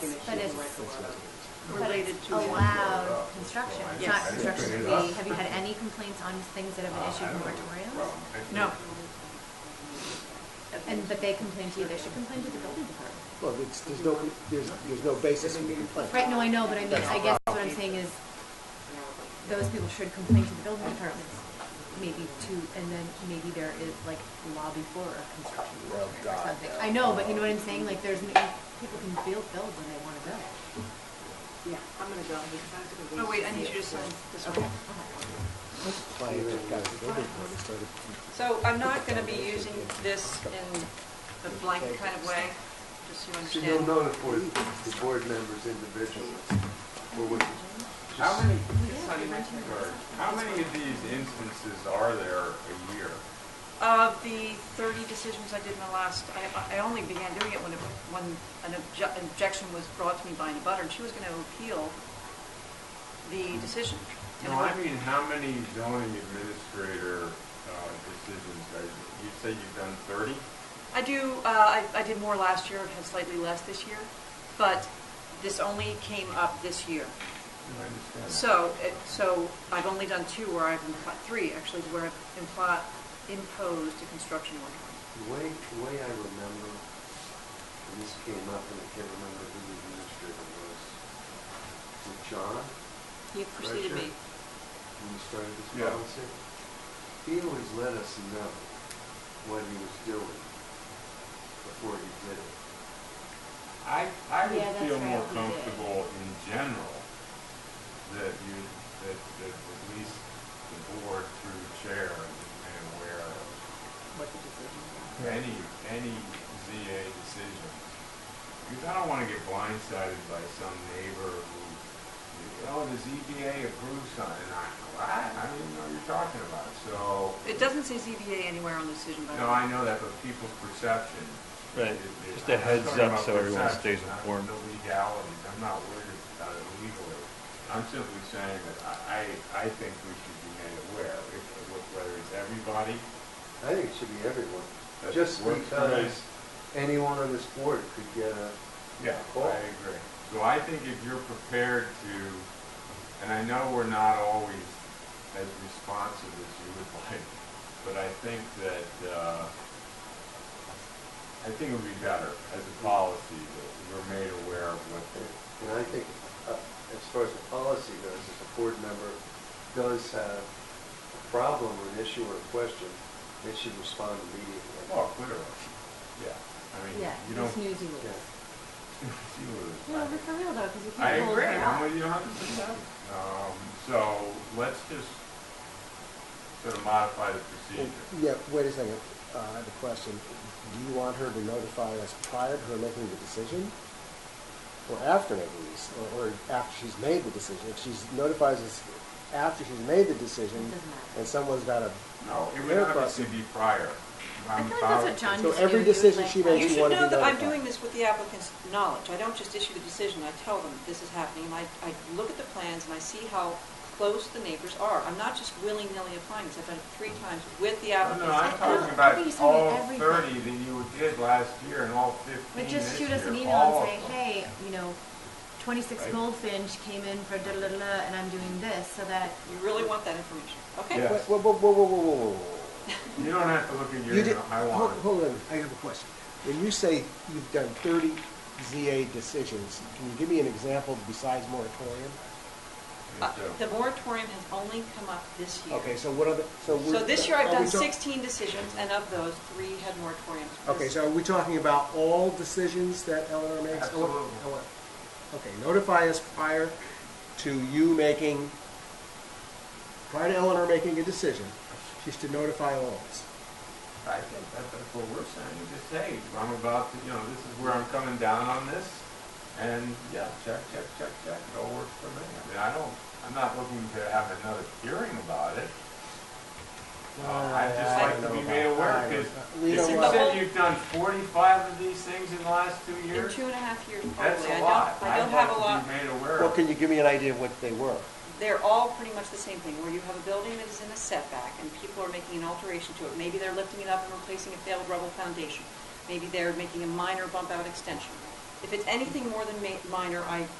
but it's but Related it's to one. allowed construction. It's not Yes. construction to be, have you had any complaints on things that have been issued moratoriums? No. And, but they complain to you, they should complain to the building department. Well, it's, there's no, there's, there's no basis in the complaint. Right, no, I know, but I mean, I guess what I'm saying is, those people should complain to the building department, maybe to, and then maybe there is like lobby for a construction Well, moratorium or God, something. yeah. I know, but you know what I'm saying, like, there's, n- people can build, build when they wanna build. Yeah, I'm gonna go. because I'm gonna Oh, wait, I need you to sign this one. Complaint that got the building permit started. So I'm not gonna be using this in the blanket kind of way, just so you So you'll understand. notify the board members individually. Or would- How many, It's not in my turn. or how many of these instances are there a year? Of the 30 decisions I did in the last, I- I only began doing it when, it- when an obje- objection was brought to me by an abutter, and she was gonna appeal the decision. And No, I I wrote- mean, how many zoning administrator uh, decisions are, you say you've done thirty? I do, uh, I, I did more last year, I've had slightly less this year, but this only came up this year. I understand that. So, it- so I've only done two where I've, impl- three actually, where I've impl- imposed a construction moratorium. The way, the way I remember, and this came up and I can't remember who the administrator was. Was it John He preceded me. Right, when we started this Yeah. policy? He always let us know what he was doing before he did it. I, I would Yeah, that's feel right, more we did. comfortable in general that you, that, that at least the board through chair is made aware of What the decision is. any, any ZA decision. Because I don't want to get blindsided by some neighbor who, oh, the ZBA approved something, and I, what? I don't even know what you're talking about, so. It doesn't say ZBA anywhere on the decision, by the No, way. I know that, but people's perception. Right, is- is- just a heads I'm talking up about so everyone perception, stays not informed. The legalities, I'm not worried about it legally. I'm simply saying that I, I I think we should be made aware, if- whether it's everybody. I think it should be everyone, that just works for me. because anyone on this board could get a, Yeah, Cool. I agree. So I think if you're prepared to, and I know we're not always as responsive as you would like, but I think that, uh, I think it would be better as a policy that we're made aware of what the, and I think, uh, as far as the policy goes, if a board member does have a problem or an issue or a question, they should respond immediately. oh, clearly, yeah. I mean, Yeah, you don't, it's news you lose. Yeah. you No, would- but for real though, because you I can't hold agree, it up. I'm with you a hundred percent. Um, so let's just sort of modify the Well, procedure. Yeah, wait a second, uh, I have a question. Do you want her to notify us prior to her making the decision? Or after maybe, or, or after she's made the decision? If she notifies us after she's made the decision, Doesn't matter. and someone's got a, No, it would Hair obviously be prior. I I'm feel like that's fine. what John used to do. so every He was decision like, she "Oh, makes, You you should want to be know notified. that I'm doing this with the applicant's knowledge. I don't just issue the decision, I tell them this is happening, and I, I look at the plans and I see how close the neighbors are. I'm not just willy-nilly applying this, I've done it three times with the No, applicant. no, I'm I talking think you about told me all everything. thirty that you did last year and all fifteen But this just shoot us an year, email all and say, of them. hey, you know, twenty-six Right. Goldfinch came in for da da da da, and I'm doing this, so that, You really want that information, okay? Yeah. Wait, Whoa, whoa, whoa, whoa, whoa, whoa, whoa. You don't have to look at your, You did, email. I hold, want it. hold on, I have a question. When you say you've done thirty ZA decisions, can you give me an example besides moratorium? Uh, So- The moratorium has only come up this year. Okay, so what are the, so we're. So this year I've are we done talk- 16 decisions, and of those, three had moratoriums. Okay, so are we talking about all decisions that Eleanor makes? I want- Absolutely. I want- Okay, notify us prior to you making, prior to Eleanor making a decision, she's to notify all of us. Uh, I think that- that's what we're saying, You just say, I'm about to, you know, this is where I'm coming down on this, and, yeah, check, check, check, check, it all works for me. I mean, I don't, I'm not looking to have another hearing about it. Uh, I'd just I like to don't be know made about- aware, I don't- because We if don't you want- said you've done forty-five of these things in the last two In years, two and a half years, that's probably. I a don't- lot. I don't have a lot. I'd like to be made aware Well, of it. can you give me an idea of what they were? they're all pretty much the same thing, where you have a building that is in a setback and people are making an alteration to it. Maybe they're lifting it up and replacing a failed rubble foundation. Maybe they're making a minor bump out extension. It- If it's anything more than ma- minor, I